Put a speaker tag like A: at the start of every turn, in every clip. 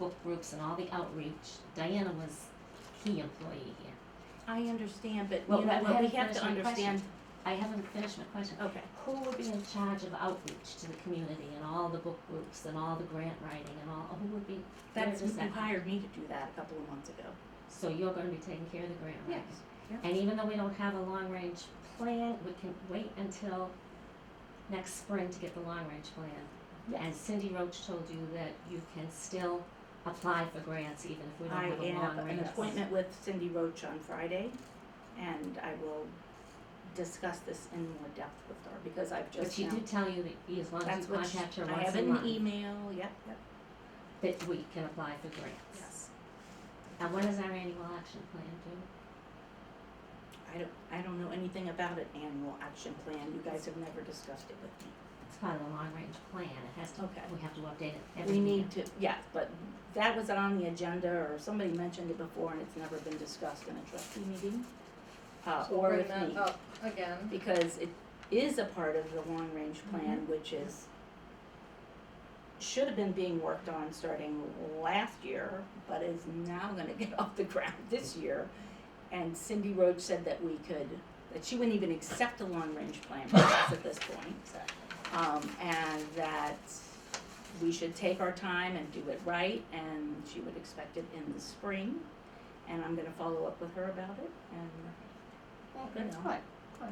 A: Facebook groups and all the outreach, Diana was key employee here.
B: I understand, but
A: Well,
B: you know
A: I
B: what, we
A: haven't
B: have to
A: finished my question.
B: understand,
A: I haven't finished my question.
B: okay,
A: Who would be in charge of outreach to the community and all the book groups and all the grant writing and all, who would be, where
B: that's, you
A: does that?
B: hired me to do that a couple of months ago.
A: So you're gonna be taking care of the grant writing?
B: yeah.
A: And even though we don't have a long range plan, we can wait until next spring to get the long range plan. And Cindy Roach told you that you can still apply for grants even if we don't
B: I
A: have a long range.
B: have an appointment with Cindy Roach on Friday, and I will discuss this in more depth with her, because I've
A: But
B: just
A: she
B: now.
A: did tell you that as long as
B: That's
A: you
B: what
A: contact her
B: I
A: once
B: have e-
A: a
B: an
A: month,
B: email, yep, yep,
A: that we can apply for grants.
B: yes.
A: And what does our annual action plan do?
B: I don't, I don't know anything about an annual action plan, you guys have never discussed it with me.
A: It's part of the long range plan, it has to,
B: Okay.
A: we have to update it every
B: We
A: year.
B: need to, yes, but that was on the agenda, or somebody mentioned it before, and it's never been discussed in a trustee meeting. Uh,
C: So
B: or
C: bring
B: with me.
C: that up again.
B: because it is a part of the long range plan, which is, should have been being worked on starting last year, but is now gonna get off the ground this year. And Cindy Roach said that we could, that she wouldn't even accept a long range plan from us at this point. Um, and that we should take our time and do it right, and she would expect it in the spring. And I'm gonna follow up with her about it, and
C: Well,
B: you
C: that's
B: know.
C: good.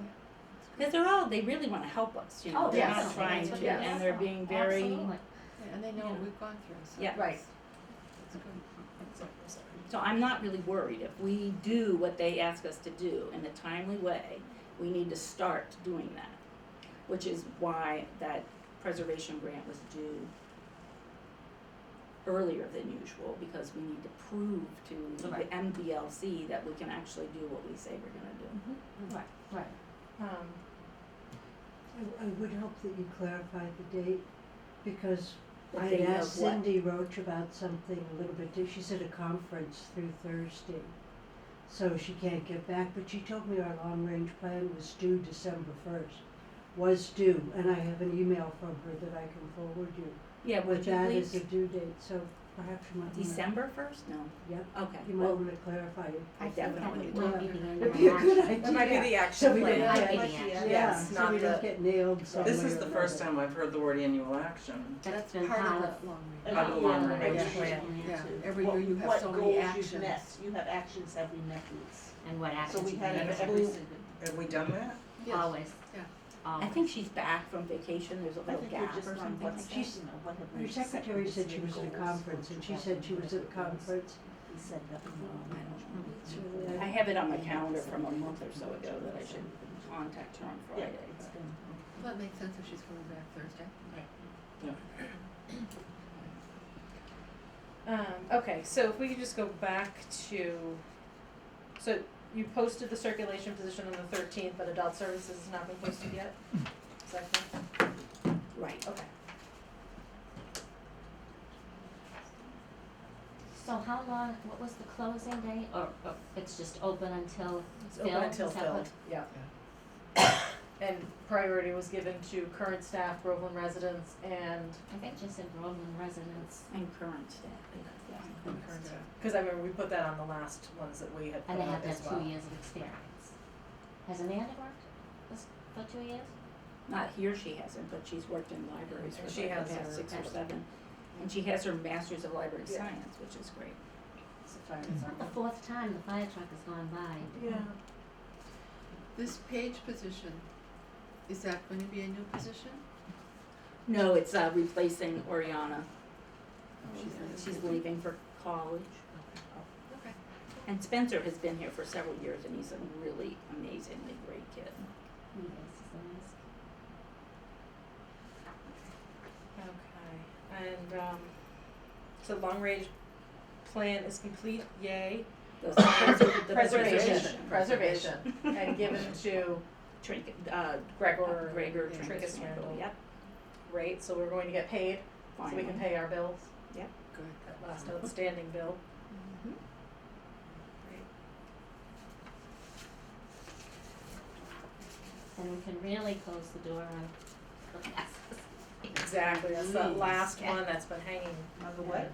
B: because they're all, they really want to help us, you know.
A: Oh,
B: they're not
A: definitely.
B: trying
A: That's
B: to,
A: what they
B: and
A: want.
B: they're being very.
A: Absolutely.
C: Yeah, And they know what
B: Yeah.
C: we've gone through, so.
B: Yeah.
D: Right.
C: It's good.
B: So I'm not really worried. If we do what they ask us to do in a timely way, we need to start doing that, which is why that preservation grant was due earlier than usual because we need to prove to the
A: Right.
B: MBLC that we can actually do what we say we're going to do.
A: Right, right.
C: Um,
D: I, I would hope that you clarify the date, because
B: The
D: I had
B: date of
D: asked
B: what?
D: Cindy Roach about something a little bit, di- she's at a conference through Thursday. So she can't get back, but she told me our long-range plan was due December first, was due, and I have an email from her that I can forward you.
B: Yeah, would
D: With
B: you
D: that as
B: please?
D: a due date, so perhaps you might wanna,
B: December first? No.
D: Yep.
B: Okay.
D: you might
B: well,
D: wanna clarify it.
B: I definitely
A: That
B: do.
A: might be the annual
D: It'd be a good
A: action.
D: idea.
E: That might be the
D: So
E: action
D: we
E: plan.
D: don't
A: Might
D: get-
A: be the
C: Yeah.
A: action.
D: Yeah,
E: Yes,
D: so
E: not
D: we don't
E: the-
D: get nailed some
E: This
D: way
E: is
D: or
E: the first
D: another.
F: time I've heard the word annual action.
A: That's been
C: Part
A: part
C: of
A: of.
C: the long range.
G: Of
A: part
G: the
A: of
F: long
A: the
F: range
A: long-range
C: plan, Yeah,
A: too.
C: every year you have so many actions.
G: What goals you've missed, you have actions that we met these.
A: And what
G: So
A: actions
G: we
A: we
G: had
A: need
G: it
A: to
G: every,
A: do.
F: Have we done that?
C: Yes,
A: Always.
C: Yeah.
A: Always.
B: I think she's back from vacation. There's a
G: I
B: little
G: think
B: gap
G: we're
B: or
G: just on
B: something.
G: what's,
B: like that.
G: you know, what have we
D: Her
G: set
D: secretary
G: this
D: said she
G: year
D: was at a
G: goals,
D: conference, and
G: what you
D: she
G: have
D: said
G: and
D: she
G: what
D: was at a
G: it was.
D: conference.
G: We said that we
B: Um,
G: were-
B: I don't know.
G: It's really-
B: I have it on my calendar from a month or so ago that I should contact her on
G: Yeah,
B: Friday.
G: it's been-
C: Well, it makes sense if she's coming back Thursday.
H: Um, okay, so if we could just go back to, so you posted the circulation position on the thirteenth, but adult services has not been posted yet? Is that correct?
B: Right.
H: Okay.
A: So how long, what was the closing date, or, or it's just open until
H: It's
A: filled?
H: open until
A: Is that what-
H: filled, yeah. And priority was given to current staff, Groveland residents, and
A: I think just in Groveland residents,
B: And current staff. yeah.
H: current staff. Cause I remember we put that on the last ones that we had put
A: and they have
H: out
A: to
H: as
A: have
H: well.
A: two years of experience. Has Amanda worked this for two years?
B: Not here she hasn't, but she's worked in libraries for
H: And she
B: like the
H: has
B: past
H: her-
B: six or seven. And she has her master's of library
C: Yeah.
B: science, which is great.
H: It's a fire
A: It's not the
H: department.
A: fourth time the fire truck has gone by.
C: Yeah. This page position, is that going to be a new position?
B: No, it's uh replacing Oriana. Oh,
C: She's leaving.
B: She's leaving for college.
C: Okay.
B: And Spencer has been here for several years and he's a really amazingly great kid.
A: Yes, it's nice.
H: Okay, and, um, so long range plan is complete, yay,
B: The preser- the
H: Preservation. preservation, and given to
B: Trinket, uh,
H: Gregor
B: Gregor
C: yeah,
B: Trinket
H: Trinket
B: Swindle,
H: Swindle.
B: yep,
H: rate, so we're going to get paid, so we can
B: finally.
H: pay our bills,
C: Good.
H: that last outstanding bill.
B: Mhm.
A: And we can really close the door on the classes.
H: Exactly, that's that last one that's been hanging
G: Another what?